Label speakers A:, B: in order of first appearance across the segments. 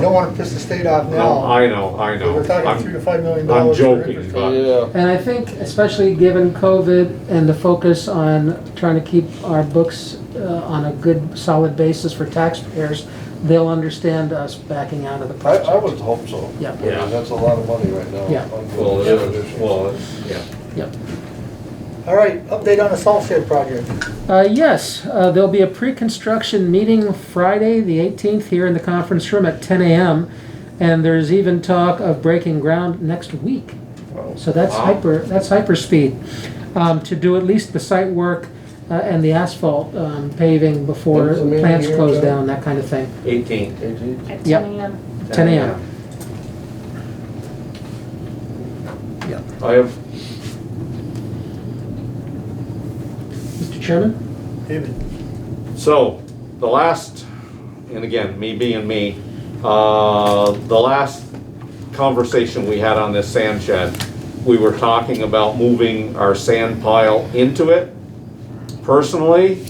A: don't wanna piss the state off
B: No,
A: now.
B: I know, I know.
A: We're talking
B: I'm-
A: three to five million
B: I'm
A: dollars. for
B: joking,
A: interest.
B: but
C: Yeah,
D: And I think, especially given COVID and the focus on trying to keep our books uh, on a good, solid basis for taxpayers, they'll understand us backing out of the
C: I,
D: project.
C: I would hope so.
D: Yeah.
C: I mean, That's a lot of money right now.
D: Yeah.
B: well, it is, well, it's- yeah.
D: Yep.
A: All right, update on the salt shed project.
D: Uh, yes, uh, there'll be a pre-construction meeting Friday, the 18th, here in the conference room at 10 a.m. And there's even talk of breaking ground next week. So that's
B: Wow.
D: hyper, that's hyper speed, um, to do at least the site work uh, and the asphalt um, paving before
C: When's the meeting
D: plants
C: here,
D: close
C: Joe?
D: down, that kind of thing.
B: Eighteen.
C: Eighteen?
E: At
D: Yep.
E: 10 a.m.
D: 10 a.m. Yeah.
B: I have,
D: Mr. Chairman?
A: David,
B: so, the last, and again, me being me, uh, the last conversation we had on this sand shed, we were talking about moving our sand pile into it. Personally,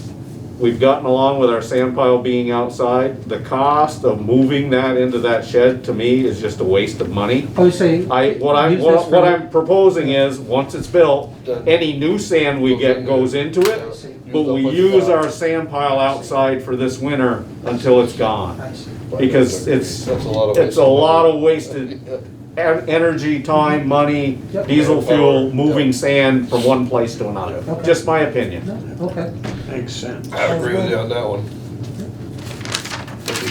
B: we've gotten along with our sand pile being outside. The cost of moving that into that shed, to me, is just a waste of money.
D: Oh, you say?
B: I, what I'm,
D: use this
B: what what
D: for-
B: I'm proposing is, once it's built,
C: Done.
B: any new sand we
C: Goes
B: get
C: in
B: goes
C: there.
B: into
C: Yeah.
B: it, but we use our sand pile outside for this winter until it's gone.
D: I see.
B: Because it's,
C: That's a lot of.
B: it's a lot of wasted en- energy, time, money,
D: Yep.
B: diesel
C: Power.
B: fuel, moving
C: Yep.
B: sand from one place to another.
D: Okay.
B: Just my opinion.
D: No, Okay.
F: Makes sense.
C: I agree with you on that one.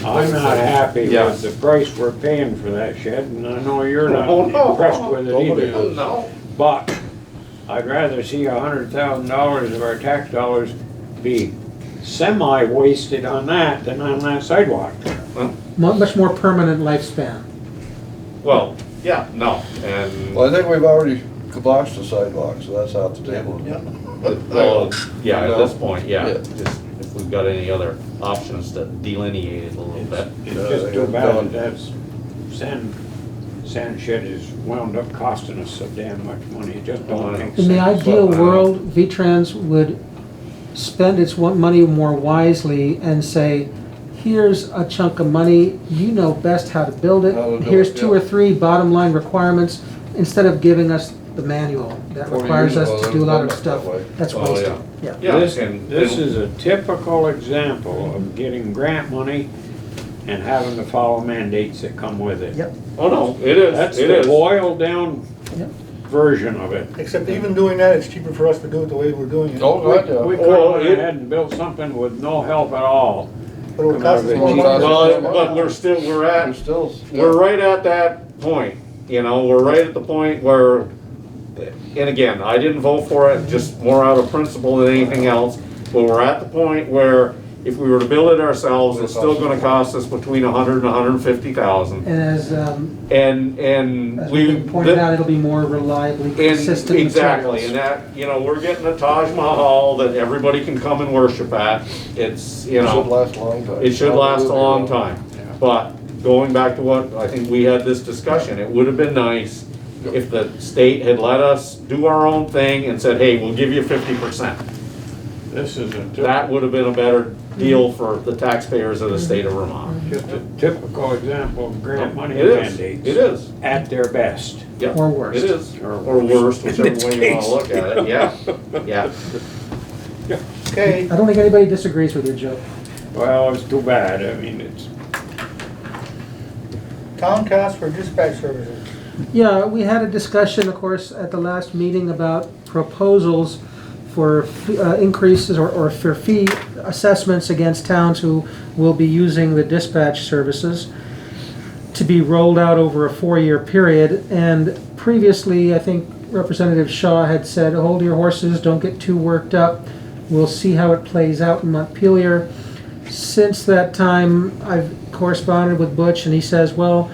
F: I'm not happy
B: Yeah.
F: with the price we're paying for that shed, and I know you're not
B: Oh, no.
F: impressed with it
C: Nobody
F: either. But I'd rather see a hundred thousand dollars of our tax dollars be semi-wasted on that than on that sidewalk.
D: Mu- Much more permanent lifespan.
B: Well, yeah, no, and,
C: Well, I think we've already kiboshed the sidewalk, so that's off the table.
A: yeah.
B: well, yeah, at this point, yeah,
C: Yeah.
B: just if we've got any other options to delineate it a little bit.
F: It's
C: Yeah,
F: just
C: you're
F: too bad
C: done.
F: that that's, sand, sand shed is wound up costing us so damn much money, it just don't make sense.
D: In the ideal
B: Well, I-
D: world, V-Trans would spend its wa- money more wisely and say, here's a chunk of money, you know best how to build it.
C: How to do
D: Here's
C: it,
D: two or
C: yeah.
D: three bottom line requirements, instead of giving us the manual that
C: 40
D: requires
C: years
D: us to
C: ago,
D: do a lot of
C: that
D: stuff.
C: was done
D: That's
B: Oh,
D: wasted,
B: yeah.
D: yeah.
B: Yeah,
F: This,
B: and-
F: this
B: and-
F: is a typical example of getting grant money and having to follow mandates that come with it.
D: Yep.
B: Oh, no, it is,
F: That's
B: it
F: the
B: is.
F: boiled down
D: Yep.
F: version of it.
A: Except even doing that, it's cheaper for us to do it the way we're doing it.
C: Oh, God, yeah.
F: We could
B: Well,
F: have
B: it-
F: went ahead and built something with no help at all.
A: But it'll cost us more money.
B: Well, it- but we're still, we're
C: We're
B: at,
C: still.
B: we're right at that point, you know, we're right at the point where, and again, I didn't vote for it, just more out of principle than anything else, but we're at the point where if we were to build it ourselves, it's still gonna cost us between a hundred and a hundred and fifty thousand.
D: And as, um,
B: And, and
D: as
B: we.
D: we pointed out, it'll be more reliably
B: And
D: consistent
B: exactly, and
D: materials.
B: that, you know, we're getting a Taj Mahal that everybody can come and worship at. It's, you
C: Should
B: know,
C: last a long time.
B: it should last a long
C: Absolutely.
B: time. But going back to what, I think we had this discussion, it would have been nice if the state had let us do our own thing and said, hey, we'll give you fifty percent.
F: This is a
B: That
F: typ-
B: would have been a better
F: Mm-hmm.
B: deal for the taxpayers of the state of Vermont.
F: just a typical example of grant money
B: It is,
F: mandates.
B: it is,
F: At their best.
B: yeah.
D: Or worse.
B: It is,
F: Or
B: or worse,
F: In
B: whichever
F: this
B: way you wanna
F: case.
B: look at it, yeah, yeah.
A: Okay,
D: I don't think anybody disagrees with you, Joe.
F: Well, it's too bad, I mean, it's.
A: town costs for dispatch services.
D: Yeah, we had a discussion, of course, at the last meeting about proposals for uh, increases or, or for fee assessments against towns who will be using the dispatch services to be rolled out over a four-year period. And previously, I think Representative Shaw had said, hold your horses, don't get too worked up. We'll see how it plays out in Montpelier. Since that time, I've corresponded with Butch and he says, well,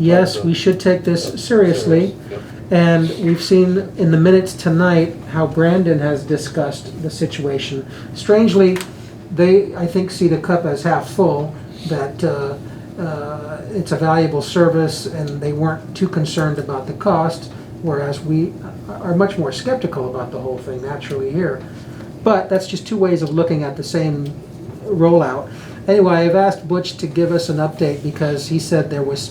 D: yes, we should take this seriously.
C: Serious,
D: And we've seen in the minutes tonight how Brandon has discussed the situation. Strangely, they, I think, see the cup as half full, that uh, uh, it's a valuable service and they weren't too concerned about the cost, whereas we are much more skeptical about the whole thing naturally here. But that's just two ways of looking at the same rollout. Anyway, I've asked Butch to give us an update because he said there was